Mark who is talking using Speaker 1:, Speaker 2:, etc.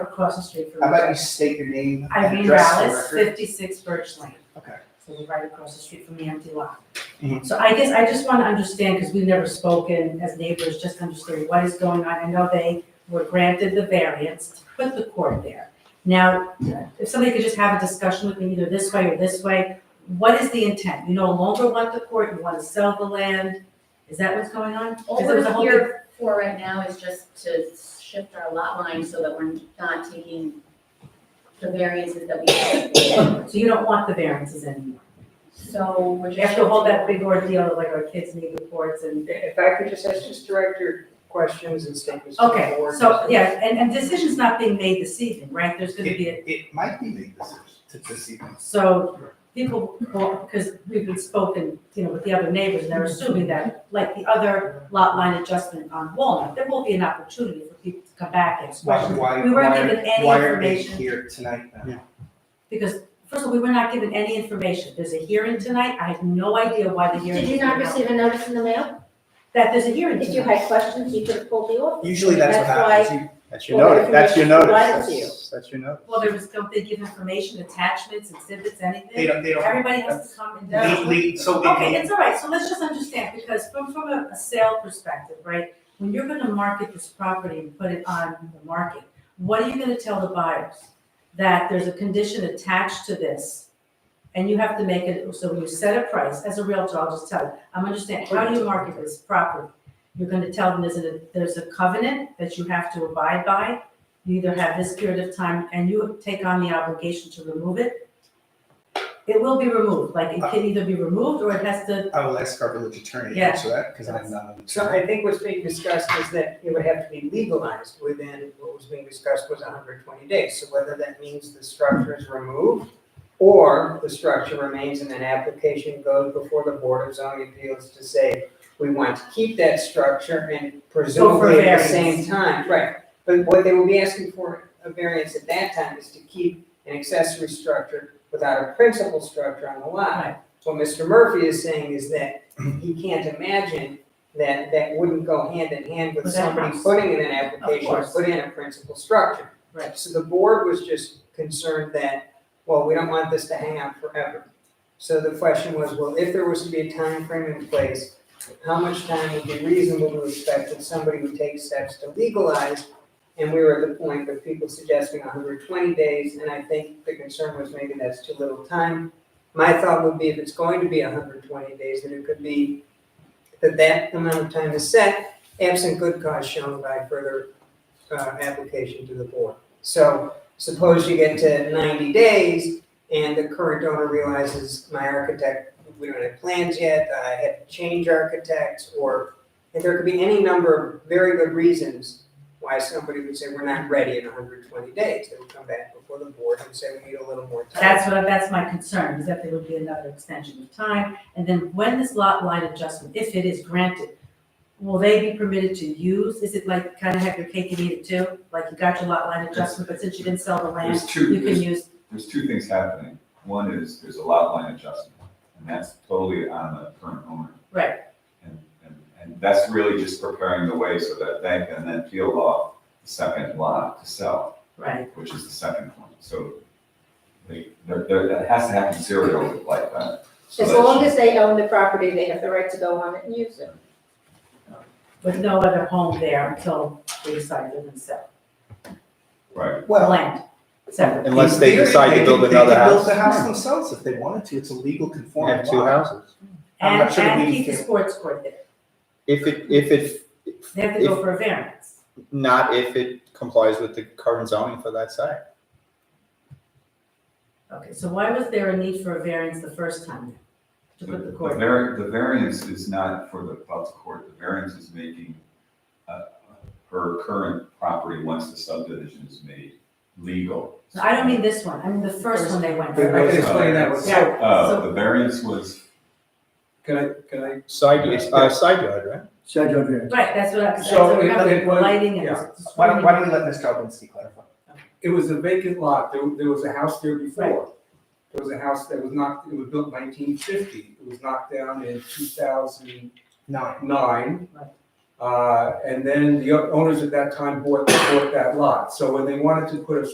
Speaker 1: across the street from.
Speaker 2: How about you
Speaker 1: each
Speaker 2: state your name
Speaker 1: other.
Speaker 2: and
Speaker 1: Irene
Speaker 2: address for the
Speaker 1: Rallis,
Speaker 2: record?
Speaker 1: fifty-six Birch Lane.
Speaker 2: Okay.
Speaker 1: So we're right across the street from the empty lot.
Speaker 2: Mhm.
Speaker 1: So I guess I just want to understand, because we've never spoken as neighbors, just understand what is going on. I know they were granted the variance to put the court there. Now, if somebody could just have a discussion with me either this way or this way, what is the intent? You no longer want the court, you want to sell the land? Is that what's going on?
Speaker 3: All
Speaker 1: Because there was a
Speaker 3: we're
Speaker 1: whole
Speaker 3: here for right now is just to shift our lot line so that we're not taking the variances that we have.
Speaker 1: So you don't want the variances anymore?
Speaker 3: So we're just.
Speaker 1: After all that big ordeal of like our kids need reports and,
Speaker 4: If I could just ask, just direct your questions and statements to the
Speaker 1: okay,
Speaker 4: board.
Speaker 1: so, yeah, and, and decision's not being made this evening, right? There's gonna be, a
Speaker 2: It, it might be made this, to this evening.
Speaker 1: so people, because we've been spoken, you know, with the other neighbors, and they're assuming that, like the other lot line adjustment on Walnut, there will be an opportunity for people to come back and ask
Speaker 2: Why,
Speaker 1: questions.
Speaker 2: why,
Speaker 1: We weren't
Speaker 2: why
Speaker 1: given any
Speaker 2: are, why are they
Speaker 1: information.
Speaker 2: here tonight then?
Speaker 1: Because, first of all, we were not given any information. There's a hearing tonight. I have no idea why the hearing.
Speaker 5: Did you not
Speaker 1: is being
Speaker 5: receive
Speaker 1: held.
Speaker 5: a notice in the mail?
Speaker 1: That there's a hearing
Speaker 5: If
Speaker 1: tonight.
Speaker 5: you had questions, you could have pulled the office.
Speaker 2: Usually that's what
Speaker 5: That's
Speaker 2: happens.
Speaker 6: That's your
Speaker 5: Well, the
Speaker 6: notice, that's your
Speaker 5: information
Speaker 6: notice,
Speaker 5: provided to
Speaker 6: that's, that's your notice.
Speaker 1: Well, there was, don't they give information, attachments, exhibits,
Speaker 2: You- They
Speaker 1: anything?
Speaker 2: don't, they don't.
Speaker 1: Everybody has to come and.
Speaker 2: They- they- so they
Speaker 1: Okay,
Speaker 2: can't-
Speaker 1: it's all right, so let's just understand, because from, from a a sale perspective, right? When you're gonna market this property and put it on the market, what are you gonna tell the buyers? That there's a condition attached to this, and you have to make it, so when you set a price, as a realtor, I'll just tell you, I'm understanding, how do you market this property? You're gonna tell them there's a, there's a covenant that you have to abide by, you either have this period of time, and you take on the obligation to remove it. It will be removed, like,
Speaker 2: Uh.
Speaker 1: it can either be removed, or it has to
Speaker 2: I will ask our village attorney to
Speaker 1: Yeah.
Speaker 2: answer that, because I'm not. an
Speaker 4: So
Speaker 2: attorney.
Speaker 4: I think what's being discussed is that it would have to be legalized within, what was being discussed was hundred twenty days. So whether that means the structure is removed or the structure remains and an application goes before the Board of Zoning Appeals to say, we want to keep that structure and presumably at the same
Speaker 1: variance.
Speaker 4: time, right? But what they will be asking for a variance at that time is to keep an accessory structure without a principal structure on the
Speaker 1: Right.
Speaker 4: lot. What Mr. Murphy is saying is that he can't imagine that that wouldn't go hand in hand with
Speaker 1: With that
Speaker 4: somebody
Speaker 1: house.
Speaker 4: putting in an application, to
Speaker 1: course.
Speaker 4: put in a principal structure.
Speaker 1: Right.
Speaker 4: So the board was just concerned that, well, we don't want this to hang out forever. So the question was, well, if there was to be a time frame in place, how much time would be reasonable to expect that somebody would take steps to legalize? And we were at the point of people suggesting hundred twenty days, and I think the concern was maybe that's too little time. My thought would be if it's going to be hundred twenty days, then it could be that that amount of time is set, absent good cause shown by further uh, application to the board. So suppose you get to ninety days and the current owner realizes my architect, we don't have plans yet, I had to change architects, or and there could be any number of very good reasons why somebody would say, we're not ready in hundred twenty days. They would come back before the board and say, we need a little more time.
Speaker 1: That's what, that's my concern, is that there would be another extension of time. And then when this lot line adjustment, if it is granted, will they be permitted to use? Is it like kind of have your cake and eat it too? Like you got your lot line adjustment, but since you didn't sell the land,
Speaker 7: There's
Speaker 1: you
Speaker 7: two,
Speaker 1: can
Speaker 7: there's,
Speaker 1: use,
Speaker 7: there's two things happening. One is, there's a lot line adjustment, and that's totally on the current owner.
Speaker 1: Right.
Speaker 7: And, and, and that's really just preparing the way so that they can then peel off the second lot to sell,
Speaker 1: right?
Speaker 7: which is the second one. So they, there, there, that has to happen serial like that. So
Speaker 5: As
Speaker 7: that
Speaker 5: long
Speaker 7: she-
Speaker 5: as they own the property, they have the right to go on it and use it.
Speaker 1: With no other home there until they decide they're gonna sell
Speaker 7: Right,
Speaker 1: the
Speaker 2: Well,
Speaker 1: land separately.
Speaker 6: Unless they
Speaker 2: in theory,
Speaker 6: decide to
Speaker 2: they could-
Speaker 6: build another
Speaker 2: They could build the
Speaker 6: house.
Speaker 2: house themselves if they wanted to, it's a legal
Speaker 6: You
Speaker 2: conforming
Speaker 6: have two
Speaker 2: lot.
Speaker 6: houses.
Speaker 2: I'm
Speaker 1: And,
Speaker 2: not sure
Speaker 1: and
Speaker 2: we
Speaker 1: keep the
Speaker 2: can-
Speaker 1: sports court there.
Speaker 6: If it, if it,
Speaker 1: They have to go for a variance.
Speaker 6: not if it complies with the current zoning for that site.
Speaker 1: Okay, so why was there a need for a variance the first time? To
Speaker 7: the,
Speaker 1: put the
Speaker 7: the
Speaker 1: court.
Speaker 7: var, the variance is not for the, about the court, the variance is making, uh, her current property, once the subdivision is made, legal.
Speaker 1: No, I don't mean this one, I mean the first one they went
Speaker 2: But I
Speaker 1: for.
Speaker 2: can explain that, so
Speaker 1: Yeah,
Speaker 7: Uh,
Speaker 1: so-
Speaker 7: the variance was,
Speaker 8: Can I, can I?
Speaker 6: Side, it's, uh, side yard, right?
Speaker 8: Side yard variance.
Speaker 1: Right, that's what I, that's
Speaker 8: So
Speaker 1: what I
Speaker 8: it- it
Speaker 1: remember,
Speaker 8: was-
Speaker 1: lighting and.
Speaker 8: yeah.
Speaker 2: Why don't, why don't we let Ms. Galbinski clarify?
Speaker 8: It was a vacant lot. There, there was a house there before. There was a house that was knocked, it was built nineteen fifty. It was knocked down in two thousand
Speaker 2: Nine.
Speaker 8: nine.
Speaker 1: Right.
Speaker 4: Uh, and then the owners at that time bought, bought that lot. So when they wanted to put a